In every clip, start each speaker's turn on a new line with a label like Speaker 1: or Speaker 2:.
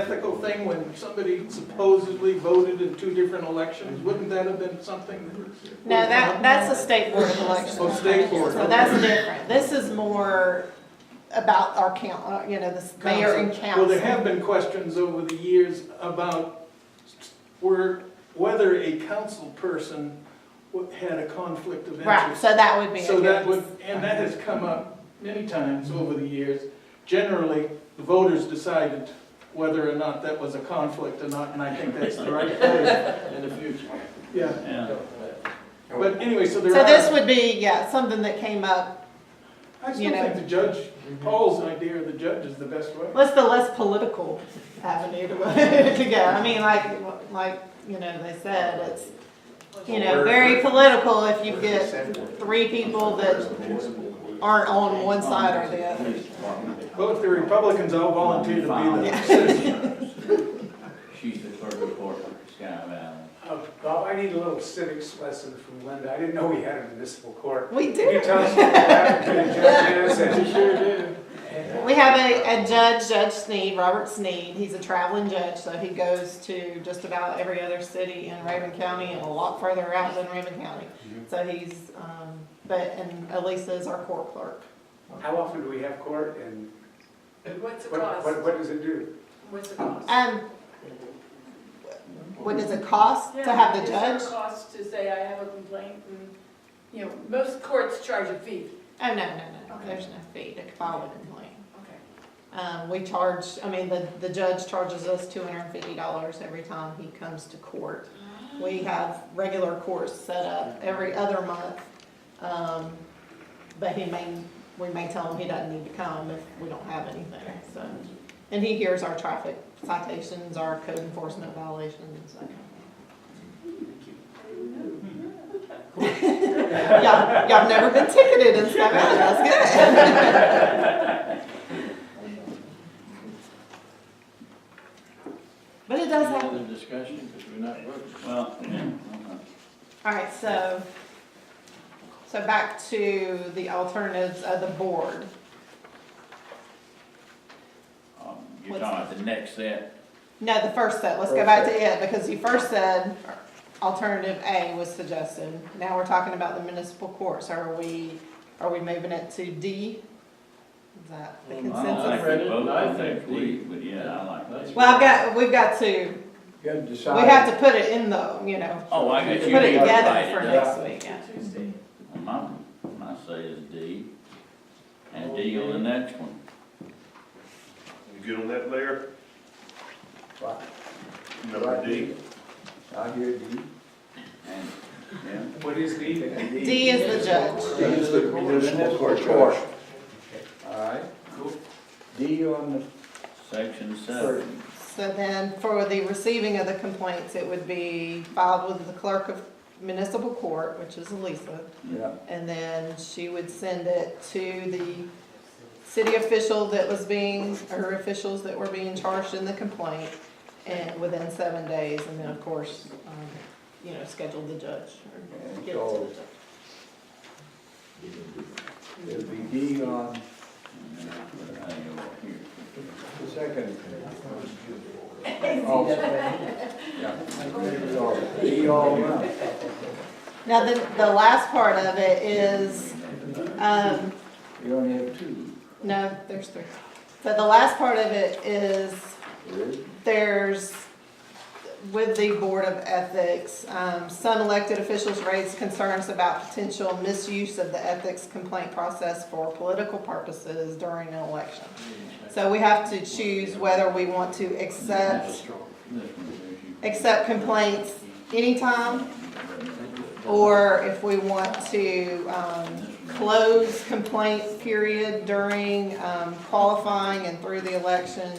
Speaker 1: ethical thing when somebody supposedly voted in two different elections? Wouldn't that have been something?
Speaker 2: No, that, that's a state board of elections.
Speaker 1: Oh, state board,
Speaker 2: So that's different. This is more about our count, uh, you know, the mayor and council.
Speaker 1: Well, there have been questions over the years about where, whether a council person wa- had a conflict of
Speaker 2: Right,
Speaker 1: interest.
Speaker 2: so that would be a
Speaker 1: So that
Speaker 2: good-
Speaker 1: would, and that has come up many times over the years. Generally, the voters decided whether or not that was a conflict or not, and I think that's the right way.
Speaker 3: in the future.
Speaker 1: Yeah,
Speaker 3: Yeah.
Speaker 1: but anyway, so there
Speaker 2: So this
Speaker 1: are,
Speaker 2: would be, yeah, something that came up,
Speaker 1: I
Speaker 2: you
Speaker 1: still
Speaker 2: know-
Speaker 1: think the judge, Paul's idea of the judge is the best way.
Speaker 2: what's the less political avenue to, to go? I mean, like, like, you know, they said, it's, you know, very political if you get three people that aren't on one side or the other.
Speaker 1: Well, if the Republicans all volunteer to be the
Speaker 2: Yeah.
Speaker 1: citizen.
Speaker 3: She's the clerk of court for Sky Valley.
Speaker 4: Uh, Bob, I need a little civics lesson from Linda. I didn't know we had a municipal court.
Speaker 2: We
Speaker 4: Can you
Speaker 2: do.
Speaker 4: tell us what happened to the judges and-
Speaker 1: Sure do.
Speaker 2: We have a, a judge, Judge Sneed, Robert Sneed, he's a traveling judge, so he goes to just about every other city in Raven County and a lot further out than Raven County. So he's, um, but, and Elisa is our court clerk.
Speaker 4: How often do we have court and
Speaker 5: What's the
Speaker 4: what,
Speaker 5: cost?
Speaker 4: what, what does it do?
Speaker 5: What's the cost?
Speaker 2: Um, what does it cost to
Speaker 5: Yeah,
Speaker 2: have the
Speaker 5: Is
Speaker 2: judge?
Speaker 5: there a cost to say I have a complaint and, you know, most courts charge a fee.
Speaker 2: Oh, no, no, no, no,
Speaker 5: Okay.
Speaker 2: there's no fee to file a complaint.
Speaker 5: Okay.
Speaker 2: Um, we charge, I mean, the, the judge charges us two hundred and fifty dollars every time he comes to court.
Speaker 5: Ah.
Speaker 2: We have regular courts set up every other month, um, but he may, we may tell him he doesn't need to come if we don't have anything, so. And he hears our traffic citations, our code enforcement violations, so. Y'all, y'all never been ticketed in Scott Valley, that's good. But it does
Speaker 3: Any
Speaker 2: happen.
Speaker 3: other discussion, because we're not voting. Well,
Speaker 2: All right, so, so back to the alternatives of the board.
Speaker 3: um, you're talking about the next set.
Speaker 2: No, the first set, let's go back to it, because you first said alternative A was suggested. Now we're talking about the municipal courts, are we, are we moving it to D? Is that the
Speaker 3: Um, I don't
Speaker 2: consensus?
Speaker 3: like
Speaker 6: Read
Speaker 3: the
Speaker 6: it,
Speaker 3: vote
Speaker 6: I
Speaker 3: on that
Speaker 6: think
Speaker 3: D, but yeah, I like that.
Speaker 2: Well, I've got, we've got to,
Speaker 6: You gotta
Speaker 2: we
Speaker 6: decide.
Speaker 2: have to put it in the, you know,
Speaker 3: Oh, I got
Speaker 2: put
Speaker 3: you.
Speaker 2: it
Speaker 3: You
Speaker 2: together
Speaker 3: divided
Speaker 2: for
Speaker 3: it up.
Speaker 2: next week, yeah.
Speaker 5: Tuesday.
Speaker 3: My, my say is D, and D on the next one.
Speaker 7: You good on that, Larry?
Speaker 6: Right.
Speaker 7: Number D.
Speaker 6: I hear you.
Speaker 3: And, yeah,
Speaker 4: What is the?
Speaker 2: D is the judge.
Speaker 6: D is the municipal court charge. All right. D on the
Speaker 3: section
Speaker 6: third.
Speaker 3: seven.
Speaker 2: So then for the receiving of the complaints, it would be filed with the clerk of municipal court, which is Elisa.
Speaker 6: Yeah,
Speaker 2: And then she would send it to the city official that was being, or officials that were being charged in the complaint and within seven days. And then, of course, um, you know, schedule the judge or get it to the judge.
Speaker 6: it'll be D on
Speaker 3: And then I put A over here.
Speaker 6: the second. Also. Yeah. D all around.
Speaker 2: Now, the, the last part of it is, um,
Speaker 6: You only have two.
Speaker 2: no, there's three. So the last part of it is
Speaker 6: Really?
Speaker 2: there's, with the Board of Ethics, um, some elected officials raised concerns about potential misuse of the ethics complaint process for political purposes during an election. So we have to choose whether we want to accept,
Speaker 3: This one here, you-
Speaker 2: accept complaints anytime, or if we want to, um, close complaint period during, um, qualifying and through the election,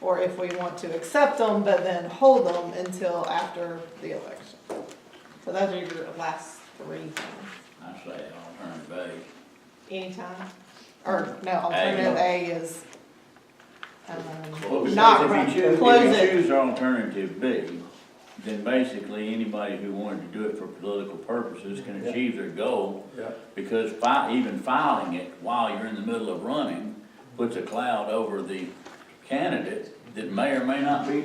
Speaker 2: or if we want to accept them, but then hold them until after the election. So those are your last three things.
Speaker 3: I say alternative A.
Speaker 2: Anytime, or no, alternative A is,
Speaker 3: Well,
Speaker 2: um,
Speaker 3: because
Speaker 2: not,
Speaker 3: if you
Speaker 2: run-
Speaker 3: choose-
Speaker 2: close
Speaker 3: If you
Speaker 2: it.
Speaker 3: choose alternative B, then basically anybody who wanted to do it for political purposes can
Speaker 6: Yeah.
Speaker 3: achieve their goal.
Speaker 6: Yeah.
Speaker 3: Because fi- even filing it while you're in the middle of running puts a cloud over the candidate that may or may not be